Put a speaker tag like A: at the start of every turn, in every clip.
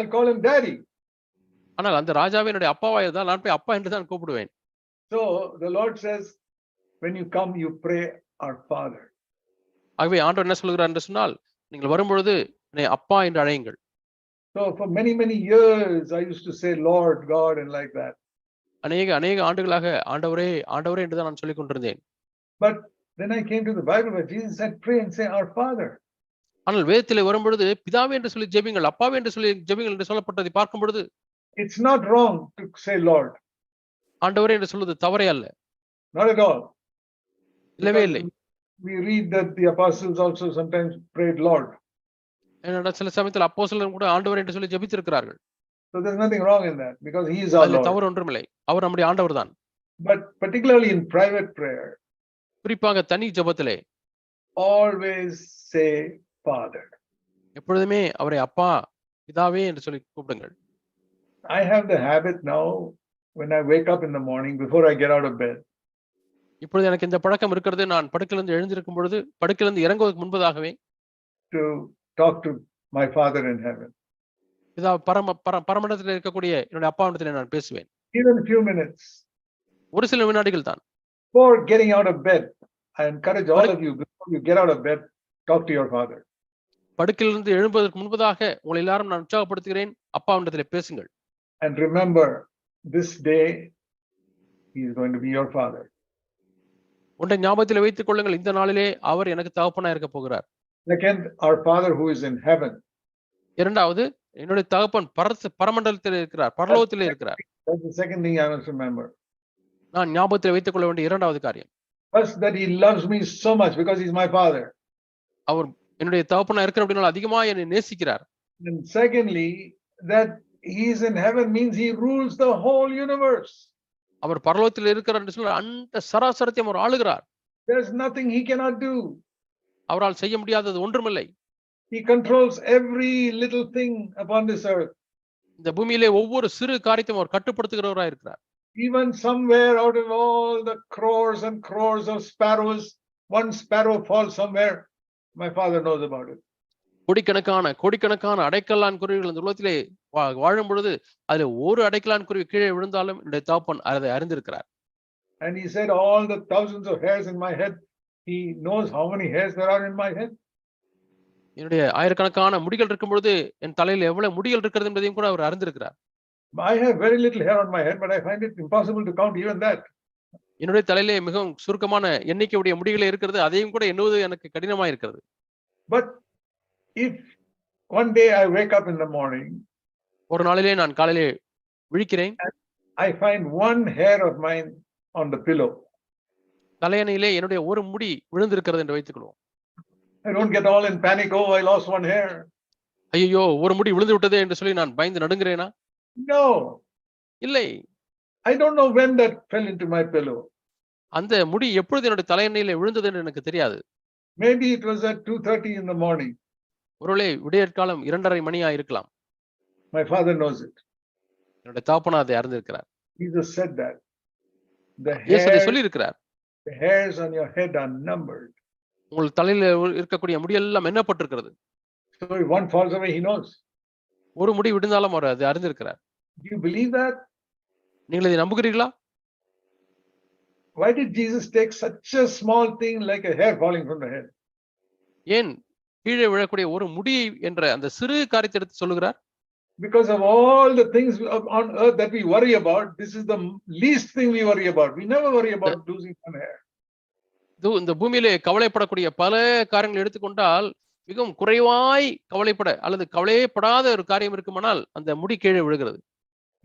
A: I'll call him daddy.
B: ஆனால் அந்த ராஜாவே என்னுடைய அப்பாவா இருந்தால் நான் போய் அப்பா என்று தான் கூப்பிடுவேன்
A: So the Lord says, when you come, you pray our Father.
B: ஆகவே ஆண்டவர் என்ன சொல்கிறார் என்று சொன்னால் நீங்கள் வரும்பொழுது என்னை அப்பா என்று அழையுங்கள்
A: So for many, many years, I used to say Lord God and like that.
B: அநேக அநேக ஆண்டுகளாக ஆண்டவரே ஆண்டவரே என்று தான் நான் சொல்லிக் கொண்டிருந்தேன்
A: Then I came to the Bible where Jesus said, pray and say our Father.
B: ஆனால் வேதத்திலே வரும்பொழுது பிதாவே என்று சொல்லி ஜெபிங்கள் அப்பாவே என்று சொல்லி ஜெபிங்கள் என்று சொல்லப்பட்டதை பார்க்கும் பொழுது
A: It's not wrong to say Lord,
B: ஆண்டவரே என்று சொல்வது தவறே அல்ல
A: not at all.
B: இல்லவே இல்லை
A: We read that the apostles also sometimes prayed Lord.
B: ஏனென்றால் சில சமயத்தில் அப்போ கூட ஆண்டவர் என்று சொல்லி ஜெபித்திருக்கிறார்கள்
A: So there's nothing wrong in that because He is our
B: அதுல
A: Lord.
B: தவறு ஒன்றுமில்லை அவர் நம்முடைய ஆண்டவர் தான்
A: But particularly in private prayer,
B: குறிப்பாக தனி ஜெபத்திலே
A: always say Father.
B: எப்பொழுதுமே அவரை அப்பா பிதாவே என்று சொல்லி கூப்பிடுங்கள்
A: I have the habit now when I wake up in the morning before I get out of bed,
B: இப்பொழுது எனக்கு இந்த பழக்கம் இருக்கிறது நான் படுக்கிலிருந்து எழுந்திருக்கும் பொழுது படுக்கிலிருந்து இறங்குவதற்கு முன்பதாகவே
A: to talk to my Father in heaven,
B: இதா பரம பர பரமண்டத்தில் இருக்கக்கூடிய என்னுடைய அப்பாவிடத்தில் நான் பேசுவேன்
A: even a few minutes
B: ஒரு சில வினாடிகள் தான்
A: before getting out of bed. I encourage all of you before you get out of bed, talk to your Father.
B: படுக்கிலிருந்து எழும்புவதற்கு முன்பதாக உங்களை எல்லாரும் நான் உற்சாகப்படுத்துகிறேன் அப்பாவிடத்திலே பேசுங்கள்
A: And remember, this day, He is going to be your Father.
B: ஒன்றை ஞாபகத்தில் வைத்துக் கொள்ளுங்கள் இந்த நாளிலே அவர் எனக்கு தகப்பனா இருக்க போகிறார்
A: Second, our Father who is in heaven.
B: இரண்டாவது என்னுடைய தகப்பன் பரச பரமண்டலத்தில் இருக்கிறார் பரலோகத்தில் இருக்கிறார்
A: That's the second thing I must remember.
B: நான் ஞாபகத்தில் வைத்துக் கொள்ள வேண்டிய இரண்டாவது காரியம்
A: First, that He loves me so much because He's my Father.
B: அவர் என்னுடைய தகப்பனா இருக்கிற அப்படின்னா அதிகமா என்னை நேசிக்கிறார்
A: And secondly, that He is in heaven means He rules the whole universe.
B: அவர் பரலோகத்தில் இருக்கிறார் என்று சொல்ல அந்த சராசரத்தையும் அவர் ஆளுகிறார்
A: There's nothing he cannot do.
B: அவரால் செய்ய முடியாதது ஒன்றுமில்லை
A: He controls every little thing upon this earth.
B: இந்த பூமியிலே ஒவ்வொரு சிறு காரியத்தையும் அவர் கட்டுப்படுத்துகிறவராக இருக்கிறார்
A: Even somewhere out of all the crores and crores of sparrows, one sparrow falls somewhere. My father knows about it.
B: கோடிக்கணக்கான கோடிக்கணக்கான அடைக்கலான் குருவிகள் இந்த உலகத்திலே வா- வாழும் பொழுது அதுல ஒரு அடைக்கலான் குருவி கீழே விழுந்தாலும் என்னுடைய தகப்பன் அதை அறிந்திருக்கிறார்
A: And he said, All the thousands of hairs in my head, he knows how many hairs there are in my head.
B: என்னுடைய ஆயிரக்கணக்கான முடிகள் இருக்கும் பொழுது என் தலையில எவ்வளவு முடிகள் இருக்கிறது என்பதையும் கூட அவர் அறிந்திருக்கிறார்
A: I have very little hair on my head, but I find it impossible to count even that.
B: என்னுடைய தலையிலே மிகவும் சுருக்கமான எண்ணிக்கையுடைய முடிகளே இருக்கிறது அதையும் கூட எண்ணுவது எனக்கு கடினமா இருக்கிறது
A: But if one day I wake up in the morning,
B: ஒரு நாளிலே நான் காலையிலே விழிக்கிறேன்
A: I find one hair of mine on the pillow.
B: தலையணையிலே என்னுடைய ஒரு முடி விழுந்திருக்கிறது என்று வைத்துக் கொள்வோம்
A: I don't get all in panic. Oh, I lost one hair.
B: ஐயோ ஒரு முடி விழுந்து விட்டதே என்று சொல்லி நான் பயந்து நடுங்கிறேனா
A: No,
B: இல்லை
A: I don't know when that fell into my pillow.
B: அந்த முடி எப்பொழுது என்னுடைய தலையணையிலே விழுந்தது என்று எனக்கு தெரியாது
A: Maybe it was at 2:30 in the morning.
B: ஒருவேளை விடியற்காலம் இரண்டரை மணியா இருக்கலாம்
A: My father knows it.
B: என்னுடைய தாப்பனா அதை அறிந்திருக்கிறார்
A: Jesus said that. The
B: இயேசு அதை
A: hairs,
B: சொல்லியிருக்கிறார்
A: the hairs on your head are numbered.
B: உங்கள் தலையில உள்ள இருக்கக்கூடிய முடியெல்லாம் எண்ணப்பட்டிருக்கிறது
A: So if one falls away, he knows.
B: ஒரு முடி விழுந்தாலும் அவர் அதை அறிந்திருக்கிறார்
A: Do you believe that?
B: நீங்கள் இதை நம்புகிறீர்களா
A: Why did Jesus take such a small thing like a hair falling from the head?
B: ஏன் கீழே விழக்கூடிய ஒரு முடி என்ற அந்த சிறு காரியத்தை எடுத்து சொல்லுகிறார்
A: Because of all the things of- on earth that we worry about, this is the least thing we worry about. We never worry about losing one hair.
B: இது இந்த பூமியிலே கவலைப்படக்கூடிய பல காரியங்களை எடுத்துக்கொண்டால் மிகவும் குறைவாய் கவலைப்பட அல்லது கவலையேப்படாத ஒரு காரியம் இருக்குமானால் அந்த முடி கீழே விழுகிறது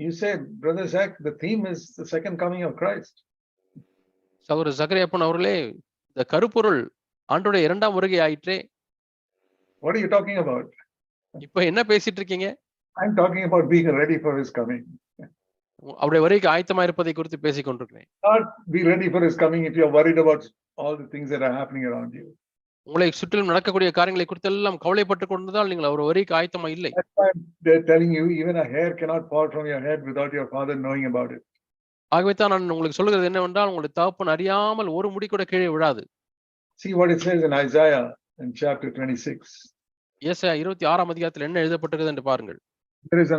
A: You said, Brother Zach, the theme is the second coming of Christ.
B: சகோதரர் சக்கரையப்பன் அவர்களே இந்த கருப்பொருள் ஆண்டோட இரண்டாம் வருகை ஆயிற்றே
A: What are you talking about?
B: இப்ப என்ன பேசிட்டு இருக்கீங்க
A: I'm talking about being ready for his coming.
B: உ- அவருடைய வருகைக்கு ஆயத்தமா இருப்பதை குறித்து பேசிக் கொண்டிருக்கிறேன்
A: Not be ready for his coming if you're worried about all the things that are happening around you.
B: உங்களை சுற்றிலும் நடக்கக்கூடிய காரியங்களை குறித்தெல்லாம் கவலைப்பட்டு கொண்டதால் நீங்கள் அவர் வருகைக்கு ஆயத்தமா இல்லை
A: That's why they're telling you even a hair cannot fall from your head without your father knowing about it.
B: ஆகவே தான் நான் உங்களுக்கு சொல்கிறது என்னவென்றால் உங்களுடைய தகப்பன் அறியாமல் ஒரு முடி கூட கீழே விழாது
A: See what it says in Isaiah in chapter 26.
B: ஏசாயா இருபத்தி ஆறாம் அதிகாரத்தில் என்ன எழுதப்பட்டிருக்குது என்று பாருங்கள்
A: there is a